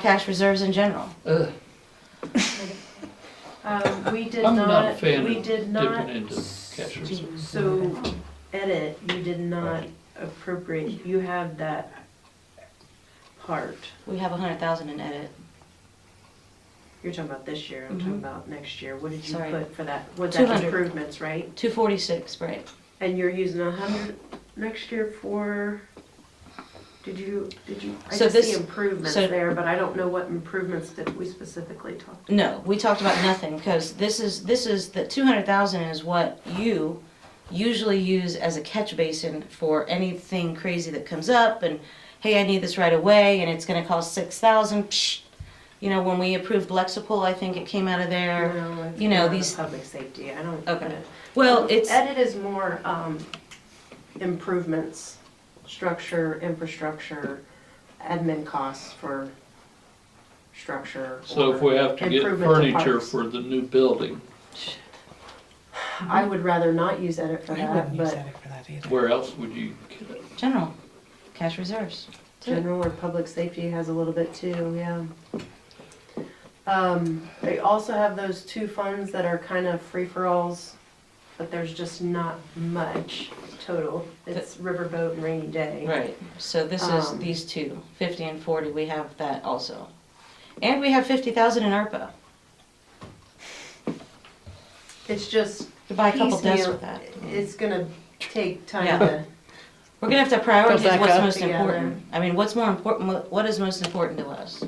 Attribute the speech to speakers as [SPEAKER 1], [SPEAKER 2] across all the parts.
[SPEAKER 1] cash reserves in general.
[SPEAKER 2] Ugh,
[SPEAKER 3] Um, we did
[SPEAKER 2] I'm not a
[SPEAKER 3] not,
[SPEAKER 2] fan
[SPEAKER 3] we
[SPEAKER 2] of
[SPEAKER 3] did
[SPEAKER 2] dipping
[SPEAKER 3] not,
[SPEAKER 2] into cash reserve.
[SPEAKER 3] so edit, you did not appropriate, you have that part.
[SPEAKER 1] We have a hundred thousand in edit.
[SPEAKER 3] You're talking about this year, I'm talking
[SPEAKER 1] Mhm.
[SPEAKER 3] about next year. What did you
[SPEAKER 1] Sorry.
[SPEAKER 3] put for that? Was that
[SPEAKER 1] 200.
[SPEAKER 3] improvements, right?
[SPEAKER 1] Two forty-six, right?
[SPEAKER 3] And you're using a hundred next year for, did you, did you, I
[SPEAKER 1] So
[SPEAKER 3] just see
[SPEAKER 1] this-
[SPEAKER 3] improvements
[SPEAKER 1] so-
[SPEAKER 3] there, but I don't know what improvements that we specifically talked.
[SPEAKER 1] No, we talked about nothing because this is, this is, the two hundred thousand is what you usually use as a catch basin for anything crazy that comes up and, hey, I need this right away and it's gonna cost six thousand, psh. You know, when we approved Lexipol, I think it came out of there.
[SPEAKER 3] No, it's
[SPEAKER 1] you know,
[SPEAKER 3] more of a
[SPEAKER 1] these-
[SPEAKER 3] Public safety, I don't.
[SPEAKER 1] Okay. Well, it's,
[SPEAKER 3] Edit Um, is more, um, improvements, structure, infrastructure, admin costs for structure.
[SPEAKER 2] So if
[SPEAKER 3] or-
[SPEAKER 2] we have to get
[SPEAKER 3] Improvement to
[SPEAKER 2] furniture
[SPEAKER 3] parks.
[SPEAKER 2] for the new building,
[SPEAKER 3] I would rather not use edit for
[SPEAKER 4] I
[SPEAKER 3] that,
[SPEAKER 4] wouldn't use
[SPEAKER 3] Uh-huh, but
[SPEAKER 4] that for that either.
[SPEAKER 2] where else would you get it?
[SPEAKER 1] general, cash reserves.
[SPEAKER 3] general or public safety has a little bit too, yeah. Um, they also have those two funds that are kind of free-for-alls, but there's just not much total. It's riverboat and rainy day.
[SPEAKER 1] Right, so this is
[SPEAKER 3] Um,
[SPEAKER 1] these two, 50 and 40, we have that also. And we have 50,000 in ARPA,
[SPEAKER 3] It's just
[SPEAKER 1] to buy a couple
[SPEAKER 3] piecemeal-
[SPEAKER 1] desks with that.
[SPEAKER 3] It's gonna take
[SPEAKER 1] Yeah.
[SPEAKER 3] time to,
[SPEAKER 1] We're gonna have to prioritize
[SPEAKER 4] back
[SPEAKER 1] what's
[SPEAKER 4] up
[SPEAKER 1] most
[SPEAKER 3] together.
[SPEAKER 1] important. I mean, what's more important, what- what is most important to us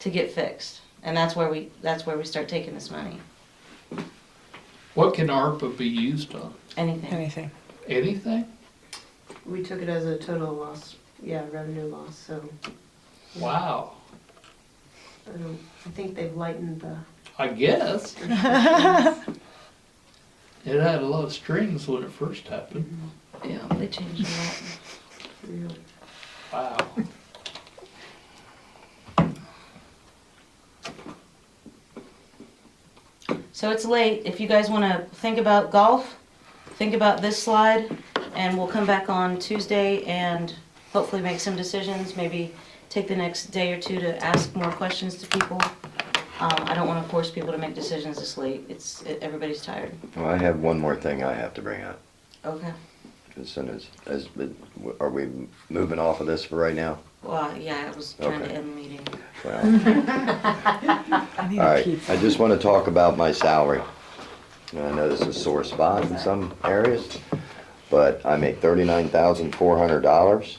[SPEAKER 1] to get fixed? And that's where we, that's where we start taking this money,
[SPEAKER 2] What can ARPA be used on?
[SPEAKER 1] anything.
[SPEAKER 4] Anything.
[SPEAKER 2] Anything?
[SPEAKER 3] we took it as a total loss, yeah, revenue loss, so
[SPEAKER 2] Wow,
[SPEAKER 3] I don't, I think they've lightened the.
[SPEAKER 2] I guess. It had a lot of strings when it first happened.
[SPEAKER 1] Yeah, they changed a lot.
[SPEAKER 3] you know.
[SPEAKER 2] Wow.
[SPEAKER 1] So it's late, if you guys wanna think about golf, think about this slide, and we'll come back on Tuesday and hopefully make some decisions, maybe take the next day or two to ask more questions to people. Um, I don't wanna force people to make decisions this late, it's, it- everybody's tired.
[SPEAKER 5] Well, I have one more thing I have to bring up.
[SPEAKER 1] Okay.
[SPEAKER 5] As soon as, as, are we moving off of this for right now?
[SPEAKER 1] Well, yeah, I was trying to
[SPEAKER 5] Okay.
[SPEAKER 1] end the meeting.
[SPEAKER 5] Well,
[SPEAKER 4] I need
[SPEAKER 5] all
[SPEAKER 4] a
[SPEAKER 5] right.
[SPEAKER 4] pizza.
[SPEAKER 5] I just want to talk about my salary. And I know this is a sore spot in some areas, but I make thirty-nine thousand four hundred dollars,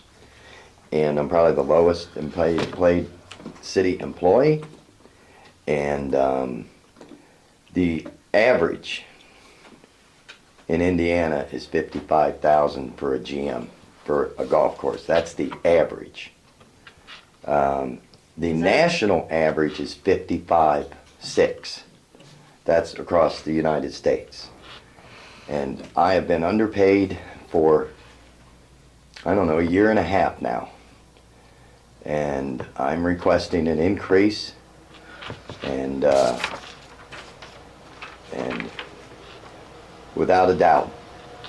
[SPEAKER 5] and I'm probably the lowest in paid, paid city employee. And um, the average in Indiana is fifty-five thousand for a GM for a golf course. That's the average. Um, the national average is fifty-five six. That's across the United States. And I have been underpaid for, I don't know, a year and a half now. And I'm requesting an increase and, uh, and without a doubt.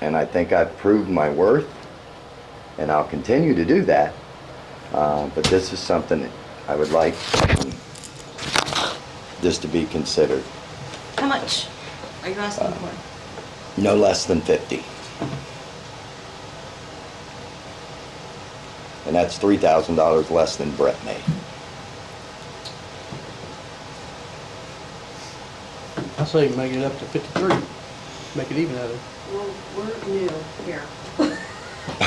[SPEAKER 5] And I think I've proved my worth and I'll continue to do that. Uh, but this is something that I would like um, this to be considered.
[SPEAKER 1] How much are you asking for?
[SPEAKER 5] No less than 50. And that's $3,000 less than Brett made.
[SPEAKER 6] I say make it up to fifty-three, make it even out of.
[SPEAKER 3] Well, we're new here.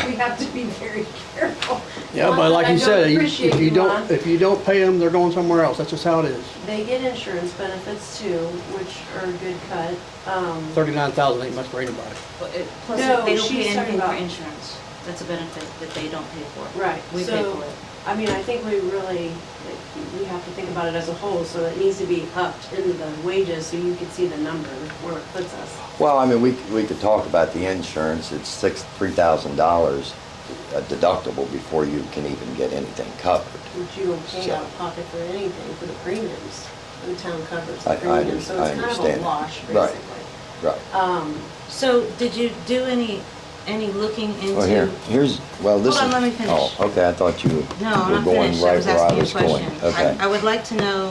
[SPEAKER 3] We have to be very careful.
[SPEAKER 6] Yeah,
[SPEAKER 3] Not
[SPEAKER 6] but
[SPEAKER 3] that
[SPEAKER 6] like
[SPEAKER 3] I
[SPEAKER 6] you
[SPEAKER 3] don't
[SPEAKER 6] said, you-
[SPEAKER 3] appreciate
[SPEAKER 6] if you
[SPEAKER 3] Ron.
[SPEAKER 6] don't, if you don't pay them, they're going somewhere else, that's just how it is.
[SPEAKER 3] They get insurance benefits too, which are a good cut. Um,
[SPEAKER 6] Thirty-nine thousand ain't much for anybody.
[SPEAKER 1] Plus,
[SPEAKER 3] No,
[SPEAKER 1] they don't
[SPEAKER 3] she's
[SPEAKER 1] pay
[SPEAKER 3] talking
[SPEAKER 1] anything for
[SPEAKER 3] about-
[SPEAKER 1] insurance. That's a benefit that they don't pay for.
[SPEAKER 3] Right,
[SPEAKER 1] We pay
[SPEAKER 3] so,
[SPEAKER 1] for it.
[SPEAKER 3] I mean, I think we really, we have to think about it as a whole, so it needs to be upped into the wages so you can see the number where it puts us.
[SPEAKER 5] Well, I mean, we, we could talk about the insurance. It's six, $3,000 a deductible before you can even get anything covered.
[SPEAKER 3] But you don't pay
[SPEAKER 5] So-
[SPEAKER 3] out of pocket for anything for the premiums. The town covers the
[SPEAKER 5] I- I
[SPEAKER 3] premiums,
[SPEAKER 5] under-
[SPEAKER 3] so it's
[SPEAKER 5] I
[SPEAKER 3] kind of a Um,
[SPEAKER 5] understand that.
[SPEAKER 1] Um,
[SPEAKER 3] wash,
[SPEAKER 5] Right.
[SPEAKER 3] basically.
[SPEAKER 5] Right.
[SPEAKER 3] Um,
[SPEAKER 1] So did you do any any looking into.
[SPEAKER 5] Well, here, here's, well, this is.
[SPEAKER 1] Hold on, let me finish.
[SPEAKER 5] Oh, okay, I thought you
[SPEAKER 1] No, I'm
[SPEAKER 5] were
[SPEAKER 1] not
[SPEAKER 5] going
[SPEAKER 1] finished. I
[SPEAKER 5] right
[SPEAKER 1] was
[SPEAKER 5] where I was
[SPEAKER 1] asking you a
[SPEAKER 5] going.
[SPEAKER 1] question.
[SPEAKER 5] Okay.
[SPEAKER 1] I- I would like to know